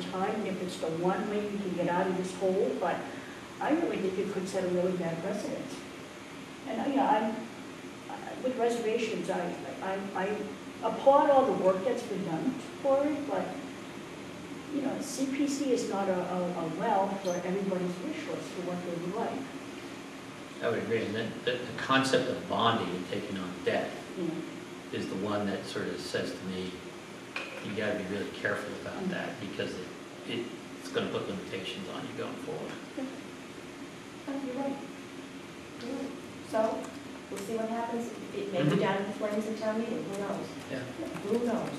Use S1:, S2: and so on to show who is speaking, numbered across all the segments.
S1: time, if it's the one way you can get out of this hole, but I really think it could set a really bad precedent. And I, I, I- with reservations, I, I, I applaud all the work that's been done for it, but, you know, CPC is not a, a, a well for everybody's wish list for what they would like,
S2: I would agree, and the, the, the concept of bonding and taking on debt
S1: you know.
S2: is the one that sort of says to me, you gotta be really careful about that, because it, it- it's gonna put limitations on you going forward.
S3: Oh, You're right. You're right. So, we'll see what happens. It may
S2: Mhm.
S3: be down in flames in town meeting, who knows?
S2: Yeah.
S3: Who knows?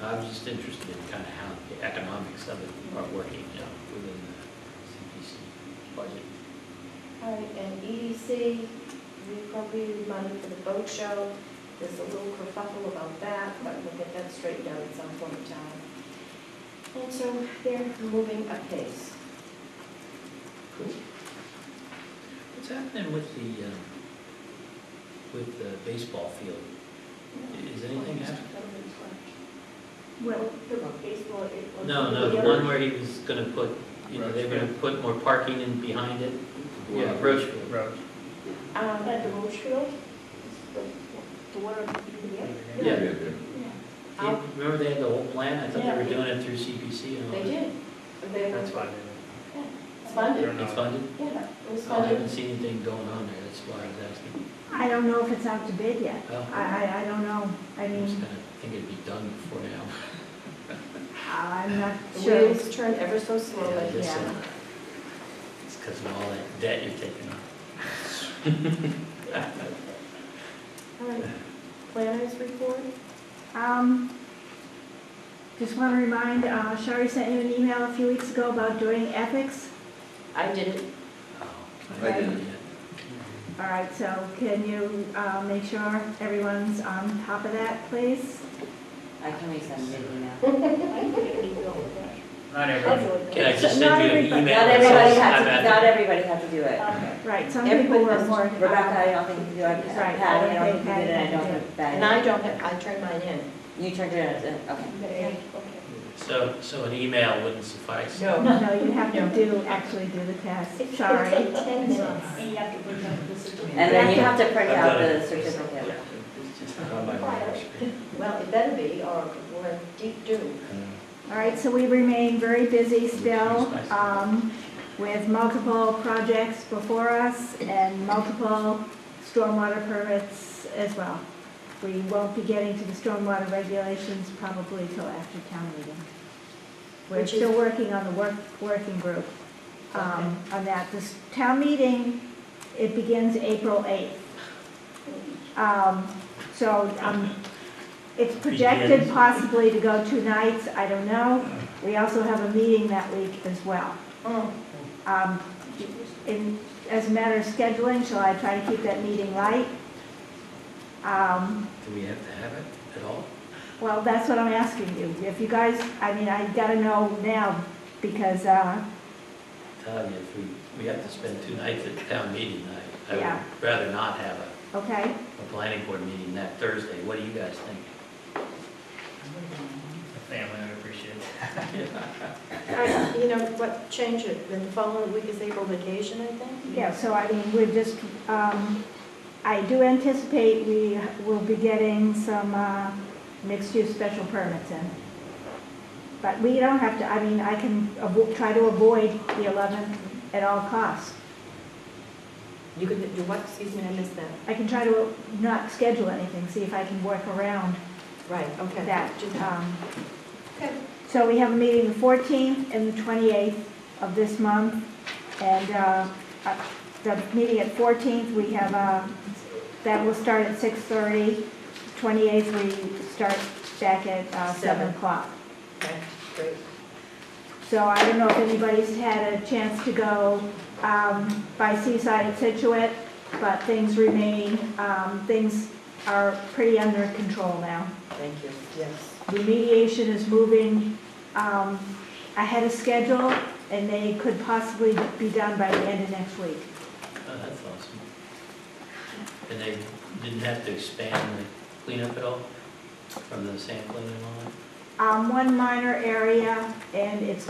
S2: I'm just interested in kind of how the economics of it are working, you know, within the CPC budget.
S3: All right, and EDC, we appropriated money for the boat show. There's a little kerfuffle about that, but we'll get that straightened out at some point in time. And so they're moving apace.
S2: Cool. What's happening with the, um, with the baseball field? Is anything happening?
S1: Well, the baseball, it was.
S2: No, no, the one where he was gonna put, you know, they're gonna put more parking in behind it. Yeah, Roachville.
S4: Roach.
S3: Um,
S1: At the Roachville, the- the one on the,
S2: Yeah.
S1: yeah.
S3: I'll-
S2: Remember they had the whole plan? I thought they were
S3: Yeah.
S2: doing it through CPC and all
S3: They
S2: that.
S3: did. They were
S4: That's fine.
S3: it's
S4: They're
S3: funded.
S2: It's
S4: not,
S2: funded?
S3: Yeah, it was
S2: I haven't
S3: funded.
S2: seen anything going on there, that's why I was asking.
S5: I don't know if it's out to bid yet.
S2: Oh,
S5: I, I, I don't know. I
S2: I'm just
S5: mean,
S2: gonna think it'd be done before now.
S5: I'm not
S3: The
S5: sure.
S3: wheels turn ever so
S2: Yeah, I
S3: slowly.
S2: guess so.
S5: yeah.
S2: uh, It's because of all that debt you're taking on.
S3: All right, planners report?
S5: Um, just want to remind, uh, Shari sent you an email a few weeks ago about doing ethics.
S3: I didn't.
S2: Oh,
S5: I
S2: didn't
S5: didn't. All right, so can you, uh, make sure everyone's on top of that, please?
S6: I can resend it now.
S1: I think we go with that.
S4: not
S1: I'll
S4: everyone.
S1: go with
S2: Can I
S1: that.
S2: just
S5: Not
S2: send you an
S5: everybody-
S2: email?
S6: Not
S2: that says I'm
S6: everybody had
S2: at
S6: to,
S2: the-
S6: not everybody had to do it.
S1: Okay.
S5: Right, some people
S6: Everybody,
S5: were more.
S6: Rebecca, I don't think you do, I just,
S5: Right,
S6: Pat, I
S5: I
S6: don't
S5: think
S6: think you did, and I don't
S5: Patty
S6: think Patty.
S3: And I don't have, I turned mine in.
S6: You turned it in, uh, okay.
S1: Okay.
S2: So, so an email wouldn't suffice?
S5: um, No, you have to do, actually do the test, sorry.
S3: It's like ten minutes.
S1: And you have to bring up the
S6: And
S1: certificate.
S6: then you have to print
S2: I've
S6: out
S2: done it.
S6: the certificate.
S2: On my radar screen.
S3: Well, it better be, or we're in deep doo.
S2: um,
S5: All right, so we remain very busy still um, with multiple projects before us and multiple stormwater permits as well. We won't be getting to the stormwater regulations probably till after town meeting. We're
S3: Which is-
S5: still working on the work, working group um, on that. This town meeting, it begins April 8th. Um, So um, it's projected
S2: Begins.
S5: possibly to go two nights, I don't know. We also have a meeting that week as well. Um, in- As a matter of scheduling, shall I try to keep that meeting light? Um,
S2: Do we have to have it at all?
S5: Well, that's what I'm asking you. If you guys, I mean, I gotta know now because, uh,
S2: Tell you, if we, we have to spend two nights at town meeting, I, I
S5: Yeah.
S2: would rather not have a,
S5: okay?
S2: a planning board meeting that Thursday. What do you guys think?
S4: Family would appreciate it.
S3: I- You know, what, change it, then the following week is April vacation, I think?
S5: Yeah, so I mean, we're just, um, I do anticipate we will be getting some, uh, mixed-use special permits in. But we don't have to, I mean, I can avo- try to avoid the eleventh at all costs.
S3: You could do what, excuse me, I missed that.
S5: I can try to not schedule anything, see if I can work around
S3: Right, okay.
S5: that.
S3: Do that.
S5: Um,
S3: Okay.
S5: So we have a meeting the fourteenth and the twenty-eighth of this month. And uh, uh, the meeting at fourteenth, we have, uh, that will start at six-thirty. Twenty-eighth, we start back at uh, seven
S3: Seven.
S5: o'clock.
S3: Okay, great.
S5: So I don't know if anybody's had a chance to go um, by Seaside at Situate, but things remain, um, things are pretty under control now.
S3: Thank you, yes.
S5: remediation is moving um, ahead of schedule, and they could possibly be done by the end of next week.
S2: Oh, that's awesome. And they didn't have to expand the cleanup at all from the sampling and all that?
S5: Um, One minor area, and it's